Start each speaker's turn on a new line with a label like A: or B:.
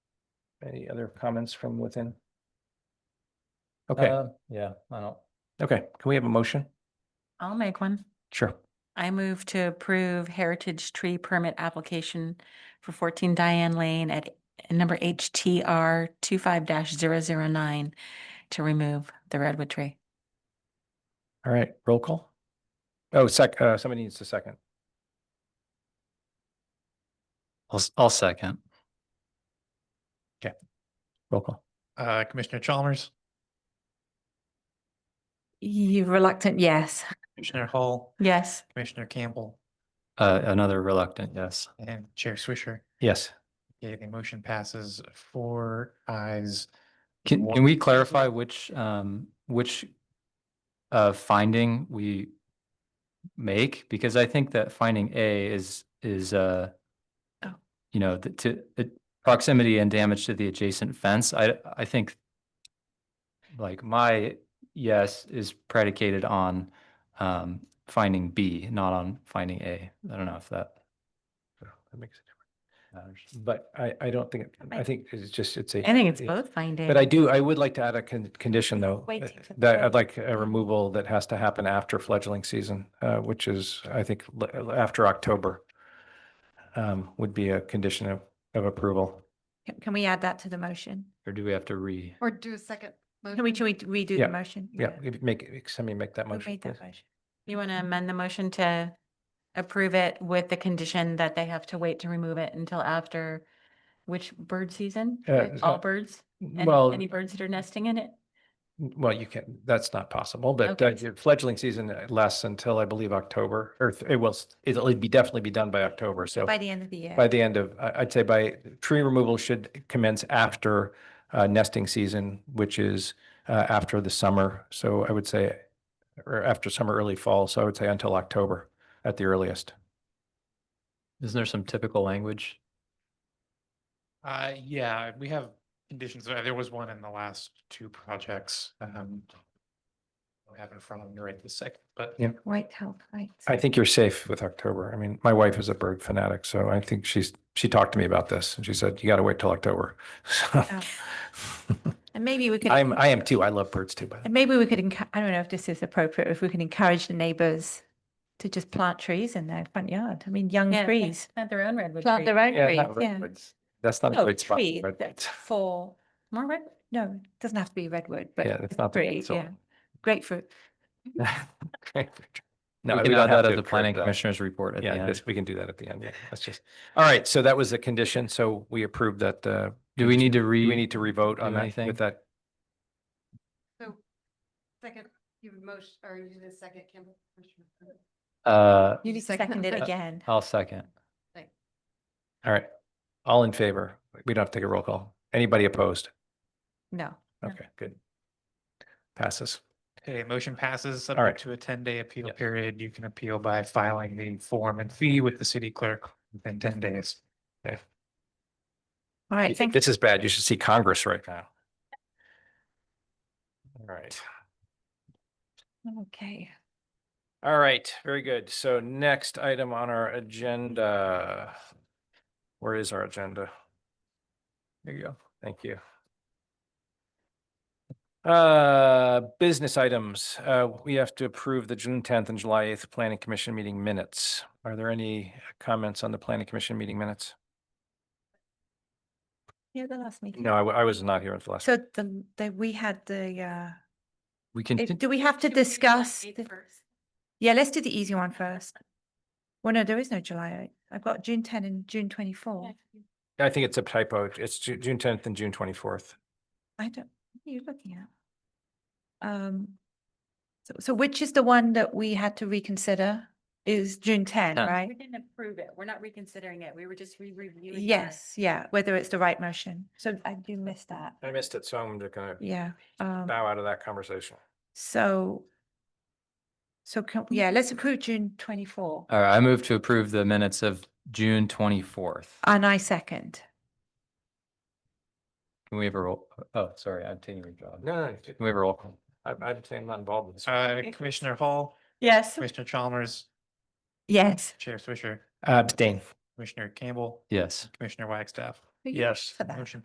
A: Any other comments from within? Okay,
B: Uh, Yeah, I don't,
A: okay. Can we have a motion?
C: I'll make one.
A: Sure.
C: I move to approve heritage tree permit application for fourteen Diane Lane at number HTR 25-009 to remove the redwood tree.
A: All right, roll call. Oh, sec, uh, somebody needs a second.
B: I'll, s- I'll second.
A: Roll call.
D: Uh, Commissioner Chalmers,
C: You reluctant, yes.
D: Commissioner Hall,
C: Yes.
D: Commissioner Campbell,
B: Uh, another reluctant yes.
D: and Chair Swisher.
A: Yes.
D: Okay, the motion passes four eyes.
B: Can,
D: Wha-
B: can we clarify which, um, which uh, finding we make? Because I think that finding A is, is, uh,
C: Oh.
B: you know, the, to, the proximity and damage to the adjacent fence, I, I think like my yes is predicated on, um, finding B, not on finding A. I don't know if that
A: So That makes a difference.
B: matters.
A: But I, I don't think, I
C: I-
A: think it's just, it's a.
C: I think it's
A: it-
C: both finding.
A: But I do, I would like to add a con- condition though.
C: Wait
A: uh,
C: till the
A: That I'd
C: fledg-
A: like a removal that has to happen after fledgling season, uh, which is, I think, l- after October. Um, would be a condition of, of approval.
E: Can- Can we add that to the motion?
B: Or do we have to re?
E: Or do a second? Can we, can we redo
A: Yeah,
E: the motion?
A: Yeah, if- make, somebody make that
E: Who
A: motion.
E: made that
A: please.
E: motion?
C: You want to amend the motion to approve it with the condition that they have to wait to remove it until after which bird season?
A: Uh, uh,
C: All birds? Any,
A: Well,
C: any birds that are nesting in it?
A: well, you can, that's not possible, but
C: Okay.
A: uh, fledgling season lasts until I believe October, or th- it will, s- it'll be definitely be done by October, so.
E: By the end of the year.
A: by the end of, I- I'd say by, tree removal should commence after uh, nesting season, which is uh, after the summer. So I would say, or after summer, early fall. So I would say until October at the earliest.
B: Isn't there some typical language?
D: Uh, yeah, we have conditions. uh, There was one in the last two projects. Um, don't have it in front of me right this second, but
A: Yeah.
E: White help, right.
A: I think you're safe with October. I mean, my wife is a bird fanatic, so I think she's, she talked to me about this and she said, you got to wait till October. So
E: And maybe we could,
A: I'm,
E: and
A: I am too. I love birds too, by the way.
E: maybe we could, encour- I don't know if this is appropriate, if we can encourage the neighbors to just plant trees in their front yard. I mean, young
C: Yeah, plant-
E: trees,
C: Plant their own redwood
E: plant
C: tree.
E: their own
A: Yeah,
E: trees,
A: not
E: yeah.
A: redwoods. That's not a
E: No,
A: great spot.
E: tree
A: for
E: that's
A: redwoods.
E: for,
C: More redwood.
E: no, it doesn't have to be redwood, but
A: Yeah, it's not. the
E: tree,
A: pencil.
E: yeah. Grapefruit.
A: Great. No,
B: We
A: I would
B: can add
A: not have
B: that
A: to
B: at the
A: approve
B: planning
A: that.
B: commissioner's report at the
A: Yeah,
B: end.
A: this- we can do that at the end. Yeah, That's just, all right. So that was the condition. So we approved that, uh,
B: Do we need to
A: do
B: re?
A: we need to revote on
B: do
A: that
B: anything?
A: with that?
F: So second, you would motion, or you did a second, Campbell? Commissioner Campbell?
B: Uh,
E: You second it
F: that.
E: again.
B: I'll second.
A: All right. All in favor? We don't have to take a roll call. Anybody opposed?
E: No.
A: Okay, good. Passes.
D: okay, motion passes
A: right.
D: subject to a ten day appeal
A: Yeah.
D: period. You can appeal by filing the form and fee with the city clerk within ten days.
E: All right, thank you.
A: This is bad. You should see Congress right now. All right.
E: Okay.
A: All right, very good. So next item on our agenda. Where is our agenda? There you go. Thank you. Uh, business items. Uh, we have to approve the June tenth and July eighth planning commission meeting minutes. Are there any comments on the planning commission meeting minutes?
E: Yeah, the last meeting.
A: No, I, wa- I was not here at the last.
E: So the, the, we had the, uh,
B: We can,
E: Eh,
B: t-
E: Do we have to
C: Should we do
E: discuss?
C: eight
E: the-
C: first?
E: Yeah, let's do the easy one first. Well, no, there is no July eight. I've got June ten and June twenty-four.
A: I think it's a typo. It's Ju- June tenth and June twenty-fourth.
E: I don't, what are you looking at? Um, so, so which is the one that we had to reconsider is June ten,
B: Ten.
C: We
E: right?
C: didn't approve it. We're not reconsidering it. We were just re-reviewing. it.
E: Yes, yeah, whether it's the right motion. So I do miss that.
A: I missed it, so I'm just gonna
E: Yeah, um,
A: bow out of that conversation.
E: so. So can, yeah, let's approve June twenty-four
B: all right, I move to approve the minutes of June twenty-fourth.
E: and I second.
B: Can we have a roll? Oh, sorry, I'm taking your job. Can
A: No, no,
B: we have a roll? call?
A: I, I'd say I'm not involved in this.
D: Uh, Commissioner Hall,
E: Yes.
D: Commissioner Chalmers,
E: Yes.
D: Chair Swisher,
A: Abstain.
D: Commissioner Campbell,
B: Yes.
D: Commissioner Wagstaff.
E: Who
D: Yes.
E: for that?
D: Motion